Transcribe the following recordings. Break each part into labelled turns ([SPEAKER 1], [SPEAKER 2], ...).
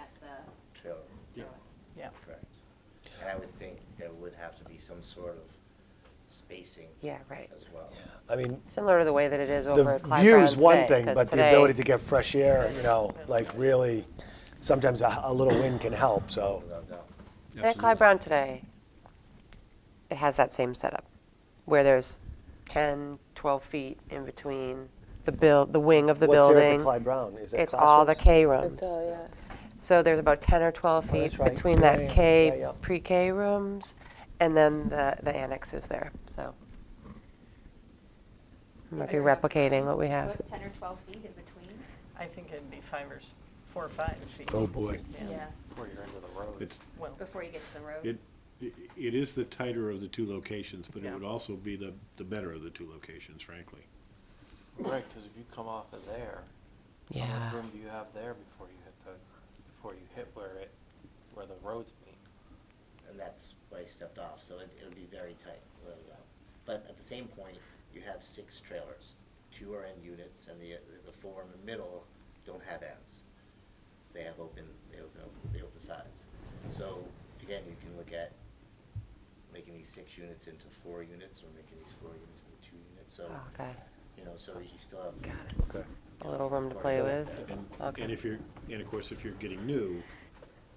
[SPEAKER 1] at the
[SPEAKER 2] trail
[SPEAKER 3] Yeah.
[SPEAKER 4] Yeah.
[SPEAKER 2] correct? And I would think there would have to be some sort of spacing
[SPEAKER 5] Yeah, right.
[SPEAKER 2] as well.
[SPEAKER 3] I mean,
[SPEAKER 5] Similar to the way that it is over
[SPEAKER 3] the
[SPEAKER 5] at Clyde Brown
[SPEAKER 3] view's one
[SPEAKER 5] today,
[SPEAKER 3] thing,
[SPEAKER 5] 'cause
[SPEAKER 3] but the
[SPEAKER 5] today-
[SPEAKER 3] ability to get fresh air, you know, like really, sometimes a, a little wind can help, so.
[SPEAKER 2] Without doubt.
[SPEAKER 5] At Clyde Brown today, it has that same setup, where there's 10, 12 feet in between the build, the wing of the
[SPEAKER 3] What's there at
[SPEAKER 5] building.
[SPEAKER 3] the Clyde Brown? Is it
[SPEAKER 5] It's all the
[SPEAKER 3] classrooms? Oh,
[SPEAKER 5] K rooms.
[SPEAKER 6] yeah.
[SPEAKER 5] So there's about 10 or 12
[SPEAKER 3] that's
[SPEAKER 5] feet
[SPEAKER 3] right.
[SPEAKER 5] between
[SPEAKER 3] Yeah,
[SPEAKER 5] that
[SPEAKER 3] yeah, yeah,
[SPEAKER 5] K,
[SPEAKER 3] yeah.
[SPEAKER 5] pre-K rooms, and then the, the annex is there, so. I don't know if you're replicating what we have.
[SPEAKER 1] Put ten or twelve feet in between.
[SPEAKER 6] I think it'd be five or s- four or five feet.
[SPEAKER 3] Oh, boy.
[SPEAKER 6] Yeah,
[SPEAKER 7] It's,
[SPEAKER 6] well,
[SPEAKER 1] Before you get to the road.
[SPEAKER 7] it, i- it is the tighter of the two locations, but it
[SPEAKER 6] Yeah.
[SPEAKER 7] would also be the, the better of the two locations, frankly.
[SPEAKER 8] Right, because if you come off of there, how
[SPEAKER 5] Yeah.
[SPEAKER 8] much room do you have there before you hit the, before you hit where it, where the roads meet?
[SPEAKER 2] And that's where I stepped off, so it, it would be very tight, without a doubt. But at the same point, you have six trailers. Two are in units and the, the four in the middle don't have ends. They have open, they open, they open sides. So again, you can look at making these six units into four units or making these four units into two units. So,
[SPEAKER 5] Oh, Ah, Okay,
[SPEAKER 2] you know, so you still have
[SPEAKER 5] got it. A little room to play with.
[SPEAKER 7] And, and
[SPEAKER 5] Okay.
[SPEAKER 7] if you're, and of course, if you're getting new,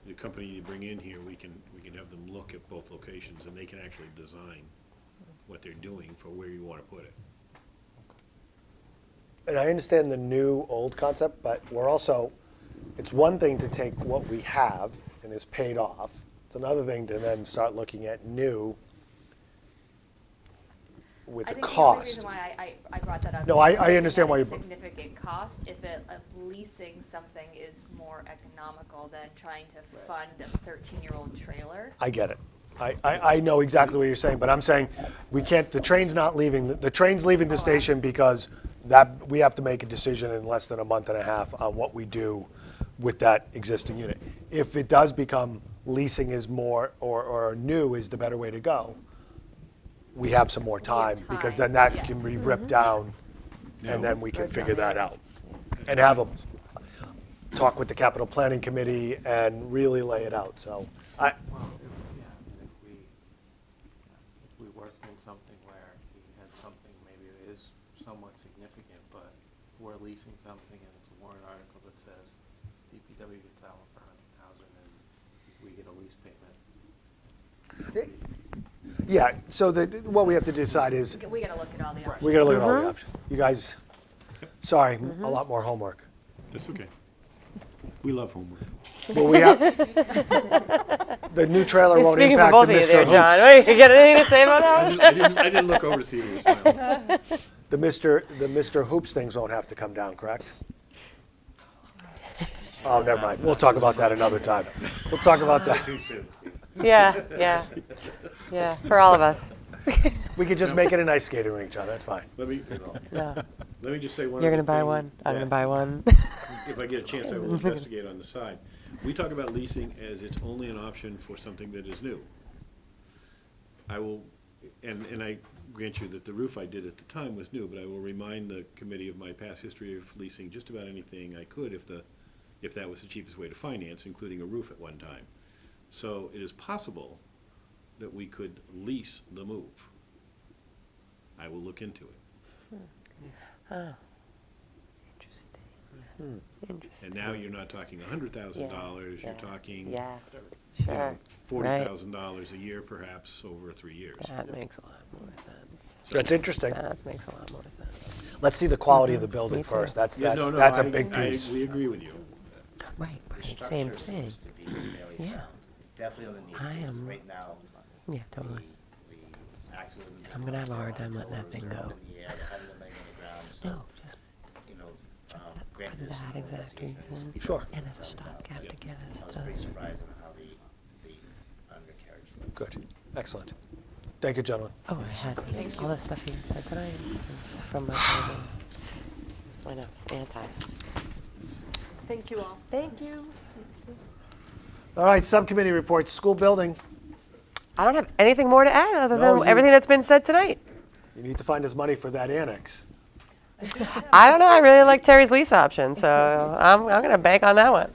[SPEAKER 7] the company you bring in here, we can, we can have them look at both locations and they can actually design what they're doing for where you want to put it.
[SPEAKER 3] And I understand the new, old concept, but we're also, it's one thing to take what we have and is paid off. It's another thing to then start looking at new with
[SPEAKER 1] I
[SPEAKER 3] the
[SPEAKER 1] think the only
[SPEAKER 3] cost.
[SPEAKER 1] reason why I, I, I brought that up.
[SPEAKER 3] No,
[SPEAKER 1] is
[SPEAKER 3] I- I
[SPEAKER 1] because it
[SPEAKER 3] understand
[SPEAKER 1] has
[SPEAKER 3] why you-
[SPEAKER 1] Significant cost, if it, if leasing something is more economical than trying to fund a thirteen-year-old trailer.
[SPEAKER 3] I get it. I, I, I know exactly what you're saying, but I'm saying we can't, the train's not leaving, the- the train's leaving the station because that, we have to make a decision in less than a month and a half on what we do with that existing unit. If it does become leasing is more, or, or new is the better way to go, we have some more time because then
[SPEAKER 1] time,
[SPEAKER 3] that can
[SPEAKER 1] yes. Mm-hmm.
[SPEAKER 3] be ripped down and
[SPEAKER 7] Now-
[SPEAKER 3] then we can figure that out. And have a, talk with the capital planning committee and really lay it out, so I,
[SPEAKER 8] Well, if, yeah, if we, if we worked in something where you had something maybe that is somewhat significant, but we're leasing something and it's a warrant article that says DPW gets that one for a hundred thousand and we get a lease payment.
[SPEAKER 3] Yeah, so the, what we have to decide is,
[SPEAKER 1] We gotta look at all the options.
[SPEAKER 3] we gotta look at all
[SPEAKER 4] Uh-huh.
[SPEAKER 3] the options. You guys, sorry,
[SPEAKER 4] Mm-hmm.
[SPEAKER 3] a lot more homework.
[SPEAKER 7] That's okay. We love homework.
[SPEAKER 3] Well, we have, the new trailer
[SPEAKER 4] He's
[SPEAKER 3] won't
[SPEAKER 4] speaking for
[SPEAKER 3] impact
[SPEAKER 4] both
[SPEAKER 3] the
[SPEAKER 4] of you there,
[SPEAKER 3] Mr.
[SPEAKER 4] John.
[SPEAKER 3] Hoops.
[SPEAKER 4] Wait, you got anything to say about that?
[SPEAKER 7] I didn't, I didn't, I didn't look over to see who was smiling.
[SPEAKER 3] The Mr., the Mr. Hoops things won't have to come down, correct? Oh, never mind, we'll talk about that another time. We'll talk about that.
[SPEAKER 2] too soon.
[SPEAKER 4] Yeah, yeah, yeah, for all of us.
[SPEAKER 3] We could just make it an ice skating rink, John, that's fine.
[SPEAKER 7] Let me,
[SPEAKER 4] No,
[SPEAKER 7] let me just say one
[SPEAKER 4] you're
[SPEAKER 7] other
[SPEAKER 4] gonna buy
[SPEAKER 7] thing
[SPEAKER 4] one, I'm
[SPEAKER 7] that-
[SPEAKER 4] gonna buy one.
[SPEAKER 7] if I get a chance, I will investigate on the side. We talk about leasing as it's only an option for something that is new. I will, and, and I grant you that the roof I did at the time was new, but I will remind the committee of my past history of leasing just about anything I could if the, if that was the cheapest way to finance, including a roof at one time. So it is possible that we could lease the move. I will look into it.
[SPEAKER 5] Interesting.
[SPEAKER 7] And now you're not talking a hundred Hmm. thousand dollars, you're
[SPEAKER 5] yeah,
[SPEAKER 7] talking
[SPEAKER 5] Yeah,
[SPEAKER 7] you know,
[SPEAKER 5] sure,
[SPEAKER 7] forty
[SPEAKER 5] right.
[SPEAKER 7] thousand dollars a year perhaps over three years.
[SPEAKER 5] that makes a lot more sense,
[SPEAKER 3] That's interesting.
[SPEAKER 5] that makes a lot more sense.
[SPEAKER 3] Let's see the quality
[SPEAKER 4] Mm-hmm.
[SPEAKER 3] of the building
[SPEAKER 5] Me too.
[SPEAKER 3] first, that's,
[SPEAKER 7] Yeah,
[SPEAKER 3] that's,
[SPEAKER 7] no, no,
[SPEAKER 3] that's a
[SPEAKER 7] I-
[SPEAKER 3] big
[SPEAKER 7] I-
[SPEAKER 3] piece.
[SPEAKER 7] We agree with you.
[SPEAKER 5] Right,
[SPEAKER 2] The
[SPEAKER 5] right,
[SPEAKER 2] structure
[SPEAKER 5] same
[SPEAKER 2] is
[SPEAKER 5] thing,
[SPEAKER 2] supposed to be fairly
[SPEAKER 5] Yeah.
[SPEAKER 2] sound. It's Definitely on the
[SPEAKER 5] I
[SPEAKER 2] need, because
[SPEAKER 5] am-
[SPEAKER 2] right now,
[SPEAKER 5] yeah,
[SPEAKER 2] the,
[SPEAKER 5] totally.
[SPEAKER 2] the axles and
[SPEAKER 5] I'm gonna have a hard time
[SPEAKER 2] the
[SPEAKER 5] letting that
[SPEAKER 2] pillars
[SPEAKER 5] thing
[SPEAKER 2] are up
[SPEAKER 5] go.
[SPEAKER 2] in the air, they haven't been laying on the ground, so,
[SPEAKER 5] No, just
[SPEAKER 2] you know, um, granted there's some
[SPEAKER 5] that
[SPEAKER 2] more
[SPEAKER 5] exact
[SPEAKER 2] investigations that needs to
[SPEAKER 5] reason.
[SPEAKER 2] be done,
[SPEAKER 3] Sure.
[SPEAKER 5] And as
[SPEAKER 2] without
[SPEAKER 5] a
[SPEAKER 2] doubt.
[SPEAKER 5] stopgap to get
[SPEAKER 2] I
[SPEAKER 5] us
[SPEAKER 2] was
[SPEAKER 5] to,
[SPEAKER 2] pretty surprised on how the, the undercarriage looked.
[SPEAKER 3] Good, excellent. Thank you, gentlemen.
[SPEAKER 5] oh, I had all the stuff you said tonight is from my, phone. I know, anti.
[SPEAKER 6] thank you all.
[SPEAKER 5] Thank you.
[SPEAKER 3] All right, subcommittee reports, school building.
[SPEAKER 5] I don't have anything more to add other
[SPEAKER 3] No,
[SPEAKER 5] than
[SPEAKER 3] you-
[SPEAKER 5] everything that's been said tonight.
[SPEAKER 3] You need to find us money for that annex.
[SPEAKER 5] I don't know. I really like Terry's lease option, so I'm, I'm going to bank on that one.